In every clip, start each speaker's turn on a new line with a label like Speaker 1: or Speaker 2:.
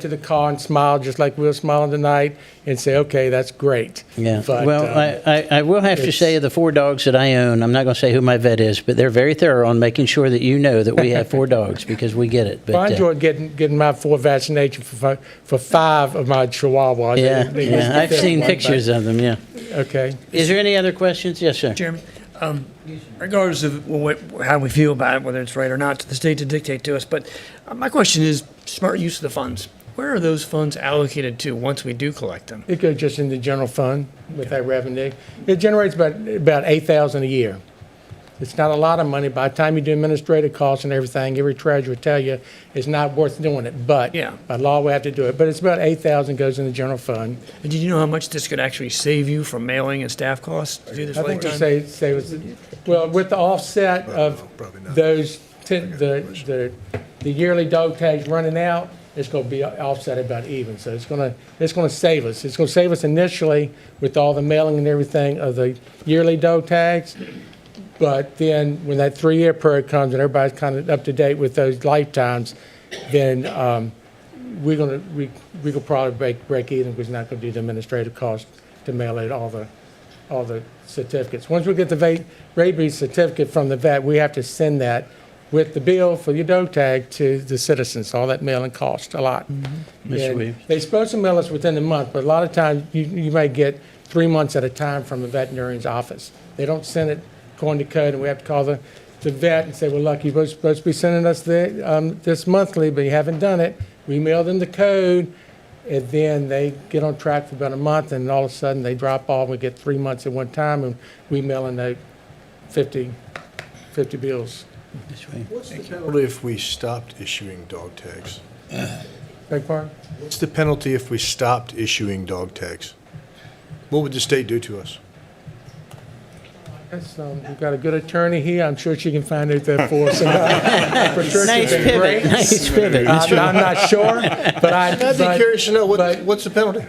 Speaker 1: to the car and smile, just like we were smiling tonight, and say, okay, that's great.
Speaker 2: Yeah.
Speaker 1: But,
Speaker 2: well,
Speaker 1: um,
Speaker 2: I, I, I will have to
Speaker 1: it's-
Speaker 2: say the four dogs that I own, I'm not going to say who my vet is, but they're very thorough on making sure that you know that we have four dogs because we get it. But,
Speaker 1: I
Speaker 2: uh,
Speaker 1: enjoyed getting, getting my four vaccination for, fi- for five of my chihuahuas. They-
Speaker 2: yeah,
Speaker 1: they missed
Speaker 2: yeah.
Speaker 1: the
Speaker 2: I've
Speaker 1: fifth
Speaker 2: seen
Speaker 1: one, but-
Speaker 2: pictures of them. Yeah.
Speaker 1: Okay.
Speaker 2: Is there any other questions? Yes, sir.
Speaker 3: Jeremy, um, regardless of what, how we feel about it, whether it's right or not, to the state to dictate to us. But uh, my question is smart use of the funds. Where are those funds allocated to once we do collect them?
Speaker 1: It goes just in the general fund with that revenue. It generates about, about eight thousand a year. It's not a lot of money. By the time you do administrative costs and everything, every treasurer will tell you it's not worth doing it, but
Speaker 3: Yeah.
Speaker 1: by law, we have to do it. But it's about eight thousand goes in the general fund.
Speaker 3: And did you know how much this could actually save you from mailing and staff costs to do this
Speaker 1: I think you
Speaker 3: lifetime?
Speaker 1: say, say, it was- well, with the offset of those, ten- the, the, the yearly dog tags running out, it's gonna be offset about even, so it's gonna, it's gonna save us. It's gonna save us initially with all the mailing and everything of the yearly dog tags, but then when that three-year period comes and everybody's kind of up to date with those lifetimes, then, um, we're gonna, we, we could probably break, break even, because we're not gonna do the administrative cost to mail out all the, all the certificates. Once we get the va- rabies certificate from the vet, we have to send that with the bill for your dog tag to the citizens, all that mailing costs a lot.
Speaker 2: Mr.
Speaker 1: And
Speaker 2: Williams.
Speaker 1: They're supposed to mail us within the month, but a lot of times, you, you may get three months at a time from the veterinarian's office. They don't send it according to code, and we have to call the, the vet and say, well, look, you're supposed- supposed to be sending us the, um, this monthly, but you haven't done it. We mail them the code, and then they get on track for about a month, and all of a sudden, they drop off, we get three months at one time, and we mail in the 50, 50 bills.
Speaker 2: This way.
Speaker 4: What's the penalty if we stopped issuing dog tags?
Speaker 1: Beg pardon?
Speaker 4: What's the penalty if we stopped issuing dog tags? What would the state do to us?
Speaker 1: That's, um, we've got a good attorney here, I'm sure she can find out that for us. Patricia's
Speaker 2: Nice
Speaker 1: been
Speaker 2: pivot.
Speaker 1: great. Uh,
Speaker 2: Nice pivot. Uh,
Speaker 1: I'm, I'm not sure, but I.
Speaker 4: I'd be
Speaker 1: but-
Speaker 4: curious to know,
Speaker 1: but-
Speaker 4: what, what's the penalty?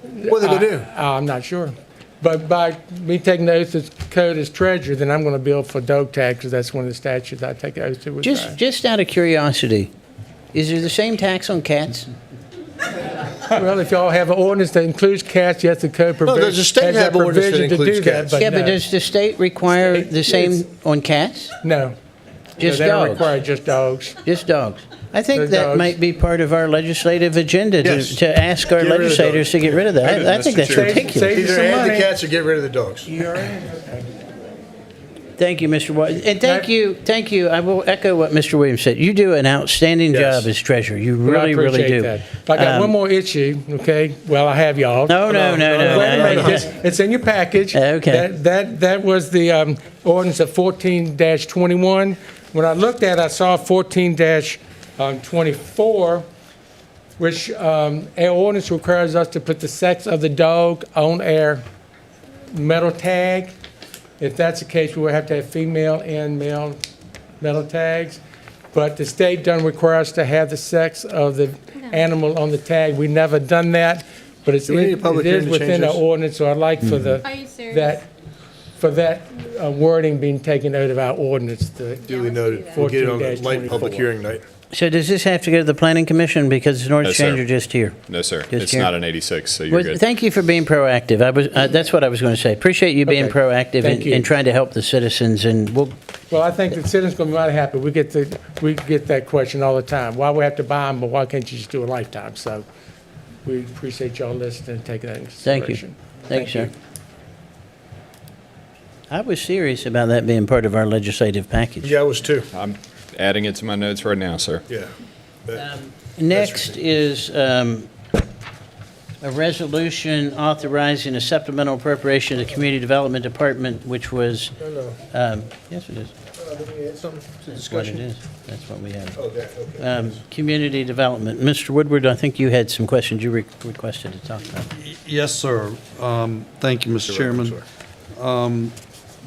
Speaker 4: What are they gonna do?
Speaker 1: uh, I'm not sure. But by me taking the oath as code as treasurer, then I'm going to bill for dog taxes. That's one of the statutes I take the oath to. which
Speaker 2: Just,
Speaker 1: I-
Speaker 2: just out of curiosity, is there the same tax on cats?
Speaker 1: Well, if y'all have an ordinance that includes cats, yes, the code provision.
Speaker 4: does the state
Speaker 1: has that
Speaker 4: have ordinance that
Speaker 1: provision to do
Speaker 4: includes cats?
Speaker 1: But
Speaker 2: yeah,
Speaker 1: no,
Speaker 2: but does the state require
Speaker 1: State
Speaker 2: the
Speaker 1: is-
Speaker 2: same on cats?
Speaker 1: no.
Speaker 2: Just
Speaker 1: No, They don't
Speaker 2: dogs.
Speaker 1: require just dogs.
Speaker 2: Just dogs. I think
Speaker 1: Just
Speaker 2: that
Speaker 1: dogs.
Speaker 2: might be part of our legislative agenda to,
Speaker 4: Yes.
Speaker 2: to ask our
Speaker 4: Get rid of the
Speaker 2: legislators
Speaker 4: dogs.
Speaker 2: to get rid of
Speaker 4: Get
Speaker 2: that.
Speaker 4: rid
Speaker 2: I,
Speaker 4: of
Speaker 2: I think
Speaker 4: Mr.
Speaker 2: that's
Speaker 4: Chair.
Speaker 2: ridiculous.
Speaker 1: Save you
Speaker 4: Either
Speaker 1: some
Speaker 4: add the
Speaker 1: money.
Speaker 4: cats or get rid of the dogs.
Speaker 2: Thank you, Mr. Williams. And thank
Speaker 1: That-
Speaker 2: you, thank you. I will echo what Mr. Williams said. You do an outstanding
Speaker 4: Yes.
Speaker 2: job as treasurer. You
Speaker 1: Well, I
Speaker 2: really, really
Speaker 1: appreciate
Speaker 2: do.
Speaker 1: that. I got one
Speaker 2: Um,
Speaker 1: more issue, okay? Well, I have y'all. Um,
Speaker 2: No, no, no, no,
Speaker 1: Wait a
Speaker 2: no,
Speaker 1: minute,
Speaker 2: no.
Speaker 1: it's- It's in your package.
Speaker 2: Okay.
Speaker 1: That, that, that was the um, ordinance of fourteen twenty-one. When I looked at, it, I saw fourteen um, twenty-four, which, um, our ordinance requires us to put the sex of the dog on our metal tag. If that's the case, we would have to have female and male metal tags. But the state doesn't require us to have the sex of the animal on the tag. We never done that, but it's,
Speaker 4: Do we need a
Speaker 1: in- it
Speaker 4: public
Speaker 1: is
Speaker 4: hearing to change
Speaker 1: within our
Speaker 4: this?
Speaker 1: ordinance, so I'd like for the,
Speaker 5: Hmm. Are you serious?
Speaker 1: that, for that uh, wording being taken out of our ordinance. the-
Speaker 4: Duly noted.
Speaker 1: that.
Speaker 4: We'll get it on a
Speaker 1: 14-24.
Speaker 4: light public hearing night.
Speaker 2: So does this have to go to the planning commission because it's an
Speaker 6: No,
Speaker 2: ordinance
Speaker 6: sir.
Speaker 2: change or just here?
Speaker 6: No, sir.
Speaker 2: Just
Speaker 6: It's
Speaker 2: here.
Speaker 6: not an 86, so you're
Speaker 2: Well,
Speaker 6: good.
Speaker 2: Thank you for being proactive. I was, uh, that's what I was going to say. Appreciate you being
Speaker 1: Okay.
Speaker 2: proactive
Speaker 1: Thank
Speaker 2: and,
Speaker 1: you.
Speaker 2: and trying to help the citizens and we'll,
Speaker 1: Well, I think the citizens gonna be mighty happy. We get the, we get that question all the time. Why we have to buy them, but why can't you just do a lifetime? So we appreciate y'all listening and taking that into
Speaker 2: Thank you.
Speaker 1: consideration.
Speaker 2: Thank you, sir. I was serious about that being part of our legislative package.
Speaker 4: Yeah, I was too.
Speaker 6: I'm adding it to my notes right now, sir.
Speaker 4: Yeah. That-
Speaker 2: Next is um, a resolution authorizing a supplemental appropriation to the Community Development Department, which was,
Speaker 4: no.
Speaker 2: um, yes, it is. That's what it
Speaker 4: Discussion?
Speaker 2: is. That's what we have.
Speaker 4: Oh, that, okay.
Speaker 2: Um, Community Development. Mr. Woodward, I think you had some questions you re- requested to talk about.
Speaker 7: Yes, sir. Um, Thank you, Mr. Chairman. Um,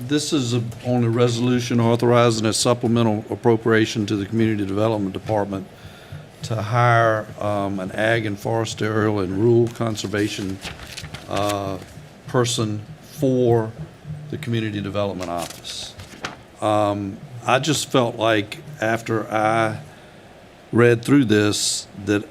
Speaker 7: This is a- on a resolution authorizing a supplemental appropriation to the Community Development Department to hire um, an ag and forest aerial and rural conservation uh, person for the Community Development Office. Um, I just felt like after I read through this that